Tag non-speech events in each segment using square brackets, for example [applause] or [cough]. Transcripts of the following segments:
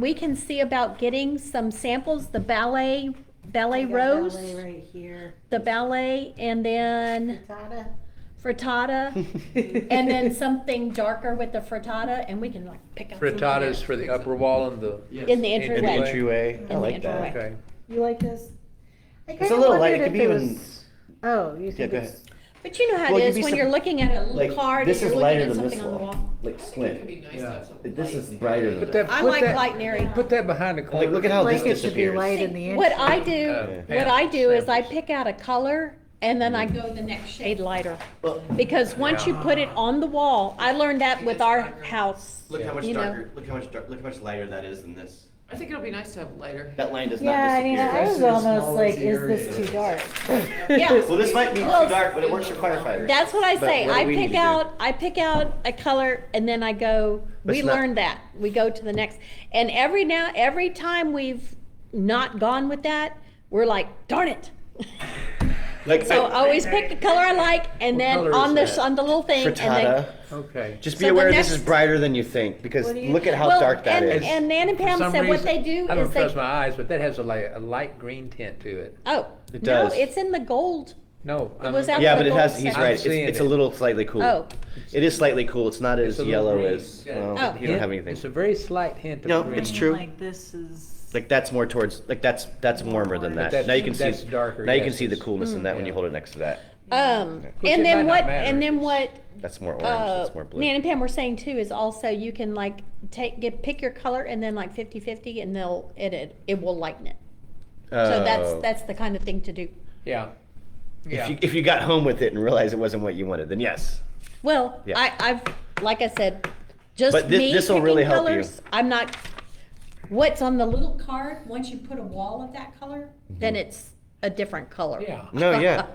we can see about getting some samples, the ballet, I ballet got rose, Ballet right here. the ballet, and then Frittata. [laughs] frittata, [laughs] and then something darker with the frittata, and we can like pick up. something Frittatas there. for the upper wall and the, Yes. In the In the In the entryway. entryway, In I the like entryway. that. okay. You like this? I It's kinda a little light, wondered it if could be even, was- Oh, you think go it's, But you know how it Well, it could is be when some- you're looking at a little like, card and this you're is looking lighter at than this something on the wall, wall. like It'd be squint. nice to have something This is light. brighter than Put that, that. I put like that- light and airy. Put that behind the curtain. Like, look at how Oh, this like it should be disappears. light in See, the What entryway. I do, Uh, what I do is I samples. pick out a color and then I go the next shade lighter. Well- Because once you put it on the wall, I learned that with our house. Look how much you know. darker, look how much, dar- look how much lighter that is than this. I think it'll be nice to have lighter. That [laughs] line does Yeah, not I mean, I disappear. was Especially the almost smaller like, the is this area too is. [laughs] dark? Yeah, Well, this might be too Well, dark, but it works for firefighters. that's what I But say. what do I we need pick to do? out, I pick out a color and then I go, But we it's not- learned that. We go to the next. And every now, every time we've not gone with that, we're like, darn it. [laughs] Like, So I always pick the color I like and What then color on is the, that? on the little thing and then. frittata. Okay. Just So be the aware this next- is brighter than you think, because What do you look at think? how Well, dark that and- is. And Nan and Pam For some said what reason- they do I is don't trust my they, eyes, but that has a light, a light green tint to it. oh, It no, does. it's in the gold. No. It was I'm- out Yeah, the but it gold has, he's section. right, it's, seeing it's it. a little slightly cool. Oh, It is slightly cool, it's not as It's a little yellow green. as, Yeah. well, Oh. you don't have anything. It's a very slight hint No, of green. it's true. Like this is. Like that's more towards like that's that's warmer than But that. Now you can that's- see that's darker, Mm. now you can yes, see the it's- coolness in that when you Yeah. hold it next to that. um, Which it and might then not what, matter. and then what, That's more orange. uh, that's more blue. Nan and Pam were saying too is also you can like take, get, pick your color and then like fifty fifty and they'll, it, it, it will lighten it. So that's, Oh. that's the kind of thing to do. Yeah. If Yeah. you if you got home with it and realized it wasn't what you wanted, then yes. Well, Yeah. I, I've, like I said, just But thi- me this'll picking really help you. colors. I'm not, what's on the little card, once you put a wall of that color, then it's a different color. Yeah. Mm-hmm. No, yeah.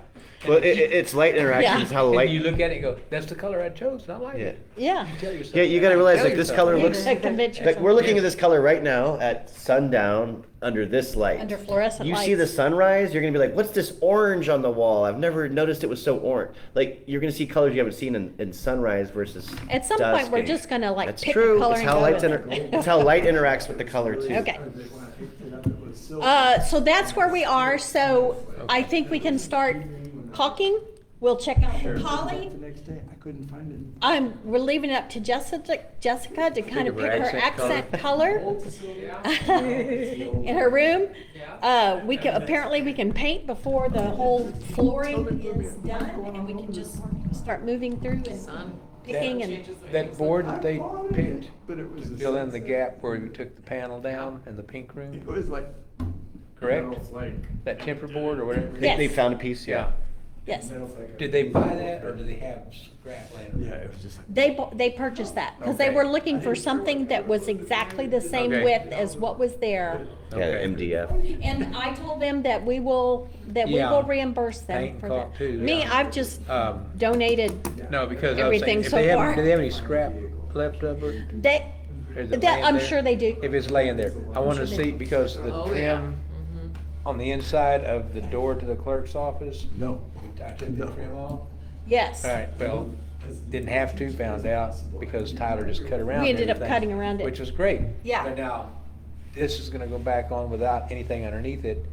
well, it, it- it's light interaction. It's how light. And you look at it and go, that's the color I chose, and I like it. [laughs] Yeah. You tell yourself Yeah, you that. gotta realize Tell like this yourself color that. looks. A convention. Like we're looking at this color right now at sundown under this light. Under fluorescent you see the lights. sunrise, you're gonna be like, "What's this orange on the wall? I've never noticed it was so orange." Like you're gonna see colors you haven't seen in, in sunrise versus. At some point, we're dusking. just gonna like That's pick true. the color it's and how go lights with inter- it. it's how light interacts with the color too. Okay. Uh, so that's where we are, so I think we can start caulking. We'll check out the poly. The next day, I couldn't find it. I'm, we're leaving it up to Jessica, Jessica to kind of of her pick her accent accent [laughs] color [laughs] in her room. Uh, we can, apparently we can paint before the whole flooring is done and we can just start moving through and Sun. picking and, That board that they picked But it was to a fill in the sunset. gap where we took the panel down in the pink It room, was like. correct? metal's like- That temper board or whatever. They, they Yes. found a piece, yeah. yes. metal's like a- Did they buy that or do they have scrap later? Yeah, it was just like. They, bu- they purchased that because they Okay. were looking for something that was exactly the same Okay. width as what was there. Okay. Yeah, MDF. And I told them that we will, that we Yeah. will reimburse Paint them and for caulk that. too, Me, yeah. I've just Um, donated, no, because I was Everything saying, if so they far. have, do they have any scrap left over? they, Is it that, laying I'm there? sure they do. If it's laying there, I want to see, because the Oh, yeah. trim on the inside of the door to the clerk's office, No. I took the trim off. Yes. All right, well, didn't have to, found out, because Tyler just cut around We ended up everything, cutting around it. Which was great. Yeah. But now, this is gonna go back on without anything underneath it,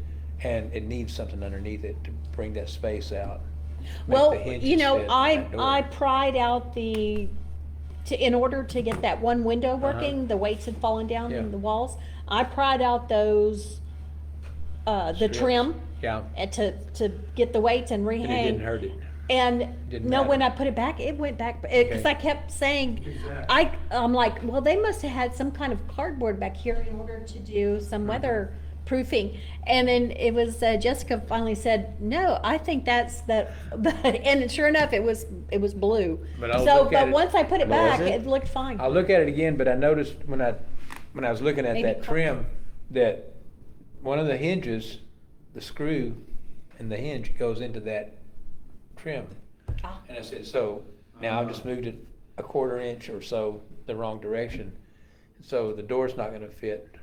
and it needs something underneath it to bring that space out. make the Well, you hinges know, fit on I, that door. I pried out the, to, in order to get that one window Uh-huh. working, the weights had fallen down Yeah. in the walls. I pried out those, uh, the Strips. trim Yeah, uh, to, to get the weights and rehang. and it didn't hurt it. And Didn't no, when I matter. put it back, it went back, because Okay. I kept saying, I, I'm like, well, they must have had some kind of cardboard back here in order to do some Mm-hmm. weather proofing. And then it was, uh, Jessica finally said, no, I think that's [laughs] that, and sure enough, it was, it was blue. But I'll So, look at but it. once I put it Well, is back, it? it looked fine. I'll look at it again, but I noticed when I, when I was looking at Maybe that cut- trim, that one of the hinges, the screw and the hinge goes into that trim. Ah. And I said, so now I've just moved it a quarter inch or so the wrong direction. So the door's not gonna fit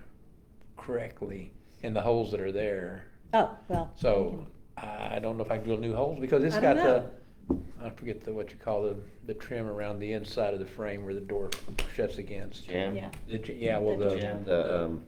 correctly in the holes that are there. Oh, well. So I don't know if I can drill new holes because it's I don't got the, know. I forget the, what you call the, the trim around the inside of the frame where the door shuts against. Jam. yeah. The j- Yeah, well, The the. jam. The um.